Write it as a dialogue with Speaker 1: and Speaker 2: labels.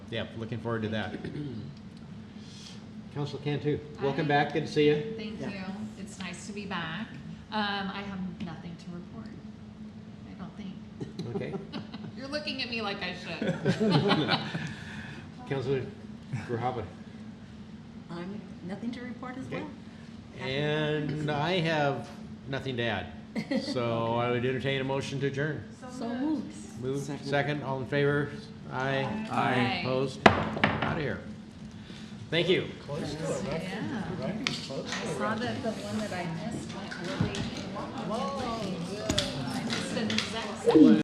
Speaker 1: yeah, looking forward to that.
Speaker 2: Council Cantu, welcome
Speaker 3: I-
Speaker 2: back, good to see you.
Speaker 3: Thank
Speaker 4: Yeah.
Speaker 3: you. It's nice to be back. Um, I have nothing to report. I don't think.
Speaker 2: Okay.
Speaker 3: You're looking at me like I should.
Speaker 2: Councilor Gruhava.
Speaker 4: I'm, nothing to report as
Speaker 2: Okay.
Speaker 4: well.
Speaker 2: And I have nothing to add. So I would entertain a motion to adjourn.
Speaker 4: So moved.
Speaker 2: Move, second, all in favor? Aye.
Speaker 3: Aye.
Speaker 2: Opposed? Out of here. Thank you.
Speaker 3: Yeah. I saw that the one that I missed went really long. I missed an exact.